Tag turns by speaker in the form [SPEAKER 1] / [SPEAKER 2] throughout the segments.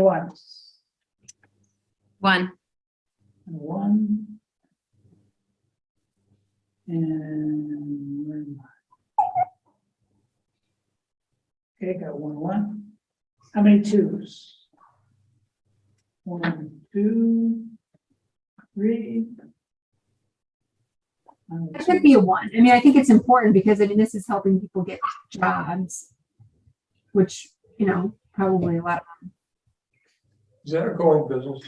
[SPEAKER 1] One,
[SPEAKER 2] One,
[SPEAKER 1] and one. And. where am I? Okay, got one, one. How many twos? One, two, three. One,
[SPEAKER 3] That
[SPEAKER 1] two.
[SPEAKER 3] could be a one. I mean, I think it's important because I mean, this is helping people get jobs, which, you know, probably a lot.
[SPEAKER 4] Is that a going business?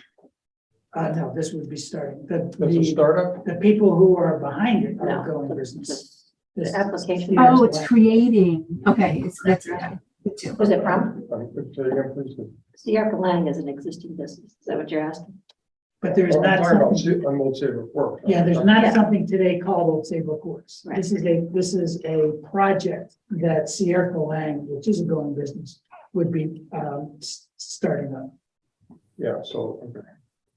[SPEAKER 1] Uh, no, this would be starting, the,
[SPEAKER 4] That's a
[SPEAKER 1] the,
[SPEAKER 4] startup?
[SPEAKER 1] the people who are behind it are
[SPEAKER 5] No.
[SPEAKER 1] going business. This-
[SPEAKER 5] application.
[SPEAKER 3] Oh, it's creating. Okay, it's, that's, yeah, good too.
[SPEAKER 5] Was it from?
[SPEAKER 4] I could say again, please.
[SPEAKER 5] CR Lang is an existing business. Is that what you're asking?
[SPEAKER 1] But there is
[SPEAKER 4] Oh, I'm
[SPEAKER 1] not
[SPEAKER 4] talking about
[SPEAKER 1] something.
[SPEAKER 4] Sa- I'm Old Saybrook Fork.
[SPEAKER 1] Yeah, there's not
[SPEAKER 5] Yeah.
[SPEAKER 1] something today called Old Sable Courts.
[SPEAKER 5] Right.
[SPEAKER 1] This is a, this is a project that Sierra Lang, which is a going business, would be um s- starting up.
[SPEAKER 4] Yeah, so, okay.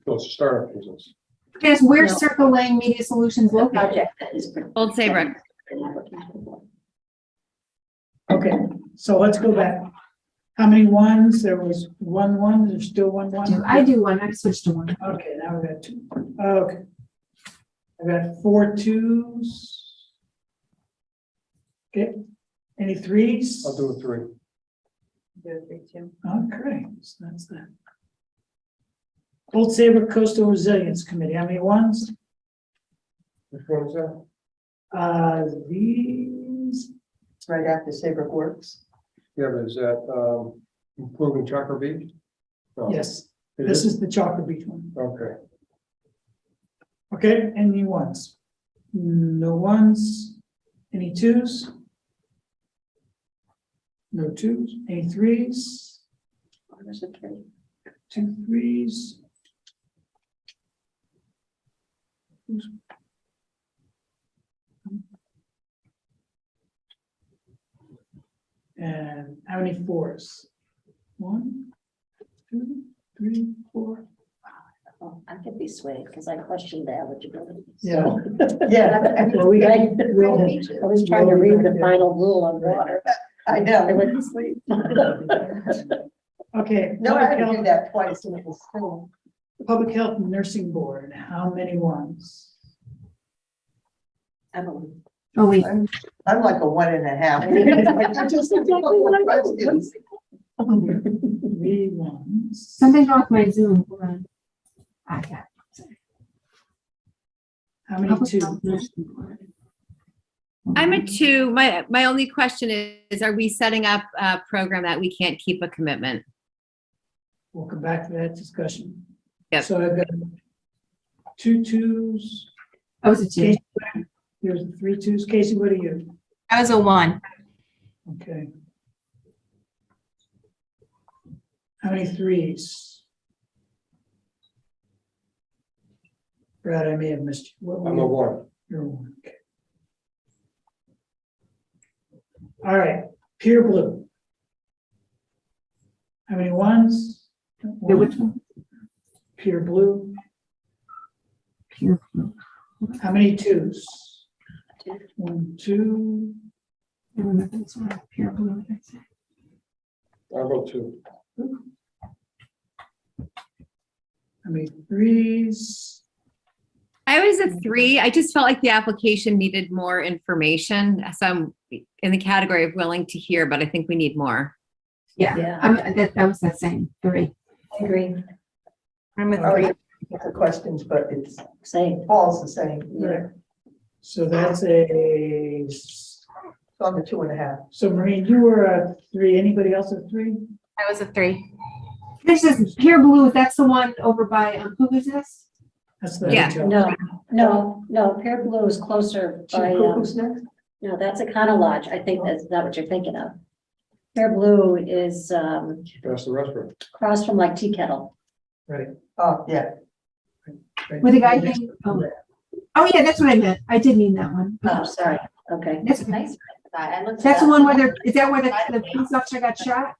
[SPEAKER 4] So it's a startup business.
[SPEAKER 3] Yes, where's
[SPEAKER 5] No.
[SPEAKER 3] Circle Lane Media Solutions
[SPEAKER 5] The
[SPEAKER 3] located?
[SPEAKER 5] project that is. for-
[SPEAKER 2] Old Saybrook.
[SPEAKER 5] An application for.
[SPEAKER 1] Okay, so let's go back. How many ones? There was one one, there's still one
[SPEAKER 3] I
[SPEAKER 1] one?
[SPEAKER 3] do- I do one. I switched to one.
[SPEAKER 1] Okay, now we got two. Okay. I got four twos. Okay, any 3s
[SPEAKER 4] I'll do a three.
[SPEAKER 1] Okay, so that's that. Old Saybrook Coastal Resilience Committee, how many ones?
[SPEAKER 4] Which one is that?
[SPEAKER 1] Uh, these,
[SPEAKER 6] right after Saybrook Works.
[SPEAKER 4] Yeah, but is that, um, improving Chakra Beach? No.
[SPEAKER 1] yes,
[SPEAKER 4] It
[SPEAKER 1] this is the Chalker Beach one.
[SPEAKER 4] Okay,
[SPEAKER 1] Okay, any ones? No ones, any twos? No twos, any threes?
[SPEAKER 5] There's a tree.
[SPEAKER 1] Two threes. And how many fours? One, two, three, four.
[SPEAKER 5] Oh, I could be swayed because I questioned the eligibility.
[SPEAKER 1] Yeah.
[SPEAKER 6] Yeah,
[SPEAKER 1] Well, we got, we'll-
[SPEAKER 5] I was trying to read the final rule on water.
[SPEAKER 6] I know.
[SPEAKER 5] I went to sleep.
[SPEAKER 1] okay.
[SPEAKER 6] No, I
[SPEAKER 1] Public
[SPEAKER 6] had to do
[SPEAKER 1] Health-
[SPEAKER 6] that twice and it was still.
[SPEAKER 1] Public Health Nursing Board, how many ones?
[SPEAKER 5] I don't know.
[SPEAKER 3] Oh, wait.
[SPEAKER 6] I'm I'm like a one and a half.
[SPEAKER 1] Three ones.
[SPEAKER 3] Something wrong with my Zoom. Hold on. I got.
[SPEAKER 1] How many twos?
[SPEAKER 2] I'm a two. My, my only question is, are we setting up a program that we can't keep a commitment?
[SPEAKER 1] We'll come back to that discussion.
[SPEAKER 2] Yep.
[SPEAKER 1] So I've got two twos,
[SPEAKER 3] I was a two.
[SPEAKER 1] There's three twos. Casey, what are you?
[SPEAKER 7] I was a one.
[SPEAKER 1] Okay. How many threes? Brad, I may have missed you. What were
[SPEAKER 4] I'm a
[SPEAKER 1] you?
[SPEAKER 4] one.
[SPEAKER 1] You're a one, okay. All right, pure blue. How many ones?
[SPEAKER 3] Yeah, which one?
[SPEAKER 1] Pure blue.
[SPEAKER 3] Pure blue.
[SPEAKER 1] How many twos?
[SPEAKER 5] Two.
[SPEAKER 1] One, two,
[SPEAKER 3] I remember this one. Pure blue. that's it.
[SPEAKER 4] I'll go two.
[SPEAKER 1] how many threes?
[SPEAKER 2] I was a three. I just felt like the application needed more information. So I'm in the category of willing to hear, but I think we need more.
[SPEAKER 3] Yeah,
[SPEAKER 5] Yeah,
[SPEAKER 3] I'm, that, that was that same three.
[SPEAKER 5] I agree.
[SPEAKER 7] I'm a
[SPEAKER 6] Oh,
[SPEAKER 7] three.
[SPEAKER 6] yeah, The questions, but it's
[SPEAKER 5] Same.
[SPEAKER 6] falls the same.
[SPEAKER 5] Yeah.
[SPEAKER 1] So that's a, so
[SPEAKER 6] So I'm a two and a half.
[SPEAKER 1] Maureen, you were a three, anybody else a three?
[SPEAKER 7] I was a three.
[SPEAKER 3] This is pure blue. That's the one over by, um, who is this?
[SPEAKER 1] That's the.
[SPEAKER 2] Yeah.
[SPEAKER 1] hotel.
[SPEAKER 5] No, no, no, Pear Blue is closer
[SPEAKER 6] Chief
[SPEAKER 5] by, um,
[SPEAKER 6] Cuckoo's next?
[SPEAKER 5] no, that's a Econo Lodge. I think that's not what you're thinking of. Pear Blue is, um,
[SPEAKER 4] That's the restaurant.
[SPEAKER 5] across from like Tea Kettle.
[SPEAKER 1] Right.
[SPEAKER 6] Oh, yeah.
[SPEAKER 1] right.
[SPEAKER 3] With the guy thing? Oh, Oh, yeah, that's what I meant. I did mean that one.
[SPEAKER 5] Oh, sorry. Okay.
[SPEAKER 3] That's,
[SPEAKER 8] Nice. I looked.
[SPEAKER 3] that's the one where they're, is that where the, the police officer got shot?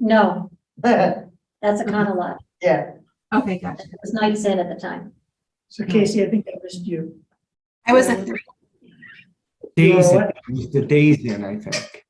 [SPEAKER 5] No,
[SPEAKER 6] Yeah,
[SPEAKER 5] that's a Econo Lodge.
[SPEAKER 6] yeah.
[SPEAKER 3] Okay, gotcha.
[SPEAKER 5] It was Knights Inn at the time.
[SPEAKER 1] So Casey, I think I missed you.
[SPEAKER 7] I was a three.
[SPEAKER 1] You were
[SPEAKER 9] Days,
[SPEAKER 1] what?
[SPEAKER 9] in. it was the days in, I think.